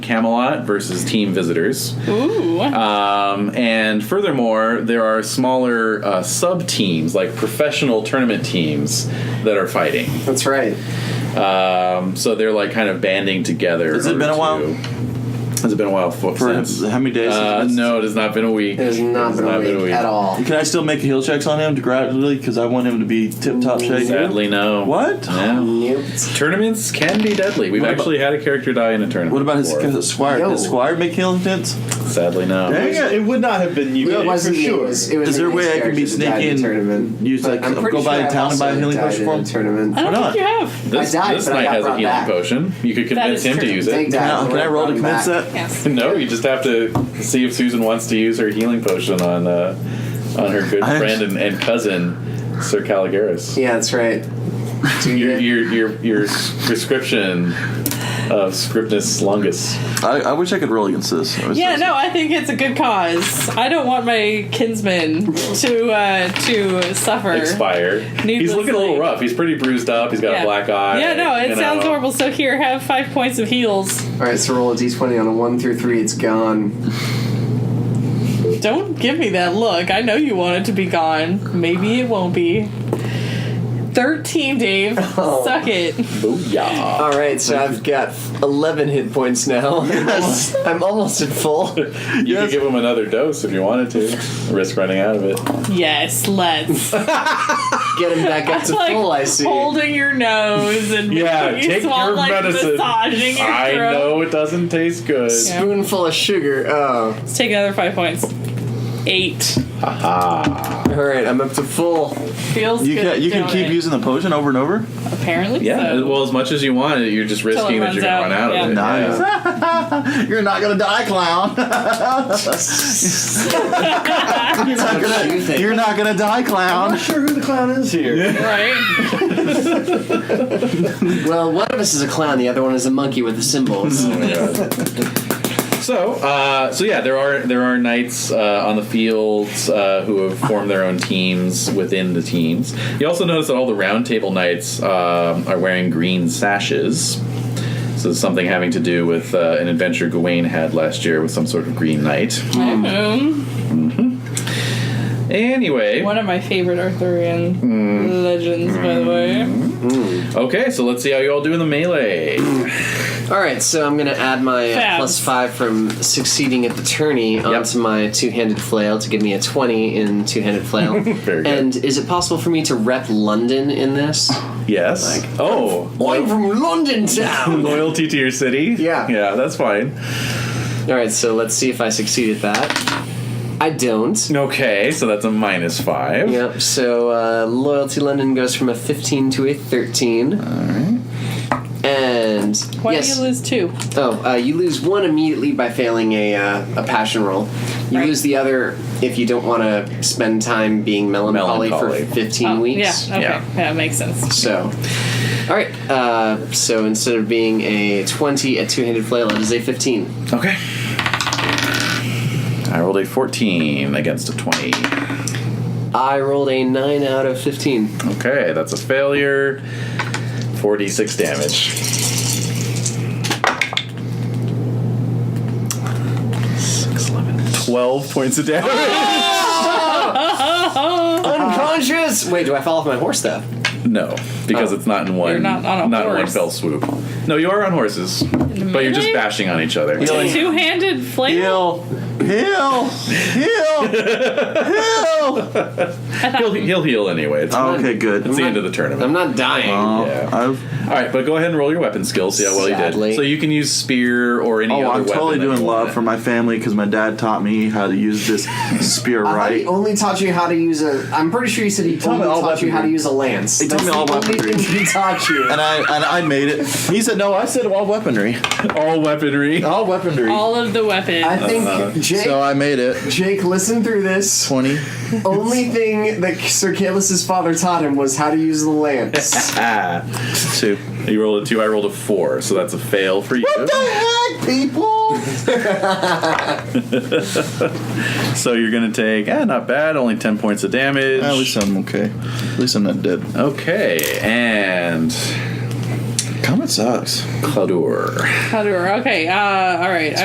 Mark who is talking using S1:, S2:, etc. S1: Camelot versus Team Visitors.
S2: Ooh.
S1: Um, and furthermore, there are smaller uh, sub teams, like professional tournament teams, that are fighting.
S3: That's right.
S1: Um, so they're like kind of banding together. in
S4: Has it
S1: order
S4: been a
S1: to-
S4: while?
S1: Has it been a while for,
S4: For
S1: since?
S4: how many days?
S1: Uh,
S4: That's-
S1: no, it has not been a week.
S3: It has not,
S1: has
S3: been, a week at all.
S4: Can I still make heel checks on him to gradually? Because I want him to be tip
S3: Mm,
S4: top shape.
S1: Sadly, no.
S4: What?
S1: Yeah.
S3: Nope.
S1: Tournaments can be deadly. We've
S4: What about-
S1: actually had a character die in a tournament.
S4: What about his,
S1: before.
S4: his squire?
S3: Yo.
S4: Does squire make heel intents?
S1: Sadly, no.
S4: Dang.
S5: Yeah, it would not have been you.
S3: It wasn't
S5: for
S3: me,
S5: sure.
S3: It was, it was
S4: Is there a way I can be sneaky and use, like, go by the town and buy a healing potion for him?
S2: I
S3: Tournament.
S2: don't
S4: not?
S2: think you have.
S1: This,
S3: I died,
S1: this
S3: but I
S1: knight
S3: got
S1: has a
S3: brought
S1: healing
S3: back.
S1: potion. You could convince
S2: is
S1: him to
S2: true.
S1: use it.
S3: Thank God.
S4: Now, can I roll to convince that?
S2: Yes.
S1: No, you just have to see if Susan wants to use her healing potion on uh, on her good
S4: I-
S1: friend and, and cousin, Sir Caligaris.
S3: Yeah, that's right. Do
S1: Your,
S3: you-
S1: your your your prescription of scriptus longus.
S4: I, I wish I could roll against this. I was
S2: Yeah,
S4: just-
S2: no, I think it's a good cause. I don't want my kinsman to uh, to suffer.
S1: Expire. He's looking a little
S2: Needlessly.
S1: rough. He's pretty bruised up. He's got
S2: Yeah.
S1: a black eye.
S2: Yeah, no,
S1: you
S2: it
S1: know.
S2: sounds horrible. So here, have five points of heals.
S3: All right, so roll a d20 on a one through three. It's gone.
S2: Don't give me that look. I know you want it to be gone. Maybe it won't be. Thirteen, Dave.
S3: Oh.
S2: Suck it.
S1: Booyah.
S3: All right, so I've got 11 hit points now. Yes. I'm almost at full.
S1: You could give him another dose if you wanted to. Risk running out of it.
S2: Yes, let's.
S3: Get him back up to
S2: like
S3: full. I see.
S2: holding your nose and
S1: Yeah,
S2: making you
S1: take
S2: swallow,
S1: your
S2: like,
S1: medicine.
S2: massaging your
S1: I
S2: throat.
S1: know it doesn't taste good.
S2: Yeah.
S3: Spoonful of sugar. Oh,
S2: Let's take another five points. Eight
S3: all right. I'm up to full.
S2: feels
S4: You
S2: good.
S4: can you can
S2: don't
S4: keep
S2: it?
S4: using the potion over and over.
S2: Apparently,
S1: Yeah,
S2: so.
S1: well, as much as you want, you're just risking that
S2: runs
S1: you're going to
S2: out,
S1: run out
S2: yeah.
S1: of it.
S4: Nice.
S1: Yeah.
S4: You're not gonna die, clown. you're, not gonna, you're not gonna die,
S5: I'm
S4: clown.
S5: not sure who the clown is here.
S2: right.
S3: Well, one of us is a clown. The other one is a monkey with the symbols.
S1: Mm-hmm. So, uh, so yeah, there are there are knights uh, on the fields uh, who have formed their own teams within the teams. You also notice that all the round table knights um, are wearing green sashes. So it's something having to do with uh, an adventure Gawain had last year with some sort of green knight. Mm.
S2: Um,
S1: Anyway,
S2: one of my favorite Arthurian
S4: Mm.
S2: legends, by the
S1: Mm.
S2: way.
S1: okay, so let's see how you all do in the melee.
S3: All right, so I'm gonna add my uh,
S2: Fab.
S3: plus five from succeeding at the tourney onto my two-handed flail to give me a twenty in two-handed flail.
S1: Very good.
S3: And is it possible for me to rep London in this?
S1: Yes. oh,
S3: I'm from London town.
S1: loyalty to your city.
S3: Yeah.
S1: yeah, that's fine.
S3: All right, so let's see if I succeed at that. I don't.
S1: Okay, so that's a minus five.
S3: Yep. So uh, loyalty London goes from a fifteen to a thirteen. All right. And
S2: Why
S3: yes.
S2: do you lose two?
S3: Oh, uh, you lose one immediately by failing a, uh, a passion roll. You
S2: Right.
S3: lose the other if you don't want to spend time being melancholy,
S1: Melancholy.
S3: for 15
S2: Oh,
S3: weeks.
S2: Yeah. Okay.
S1: Yeah.
S2: Yeah. it makes sense.
S3: So, all right. Uh, so instead of being a 20 at two handed flail, it is a 15.
S1: Okay. I rolled a 14 against a 20.
S3: I rolled a 9 out of 15.
S1: Okay, that's a failure. 46 damage. Six, eleven, twelve points of damage.
S3: Unconscious! Wait, do I fall off my horse though?
S1: no, because
S3: Oh.
S1: it's not in one.
S2: You're not on a
S1: in one
S2: horse.
S1: fell swoop. No, you are on horses, but you're just
S2: melee?
S1: bashing on each other.
S2: Two-handed flail.
S4: Heal, heal, heal, heal.
S1: He'll, he'll heal anyway. It's,
S4: Oh, okay, good.
S1: it's the
S3: not-
S1: end of the tournament.
S3: I'm not dying.
S4: Oh,
S1: Yeah.
S4: I've,
S1: All right, but go ahead and roll your weapon skill. See how well you
S3: Sadly.
S1: did. So you can use spear or any
S4: oh,
S1: other
S4: I'm
S1: weapon.
S4: totally
S1: that
S4: doing
S1: you
S4: love
S1: want.
S4: for my family because my dad taught me how to use this spear
S3: I thought he
S4: right.
S3: only taught you how to use a. I'm pretty sure he said he
S4: taught me
S3: only
S4: all
S3: taught you how to
S4: weaponry.
S3: use a lance.
S4: He taught
S3: That's
S4: me all
S3: the only
S4: weaponry.
S3: thing he taught you.
S4: And I and I made it. He said no. I said all weaponry,
S1: all weaponry.
S4: all weaponry.
S2: All of the weapons.
S3: I think Jake.
S4: Uh, so I made it.
S3: Jake, listen through this.
S4: Twenty.
S3: Only thing that Sir Caelus's father taught him was how to use the lance.
S1: Ah,
S4: Two.
S1: you rolled a two. I rolled a four, so that's a fail for you.
S4: heck, people?
S1: So you're gonna take ah, not bad, only ten points of damage.
S4: At least I'm okay. At least I'm not dead.
S1: okay, and
S4: Comet sucks.
S1: Cladur.
S2: How do- Okay. Uh, all right.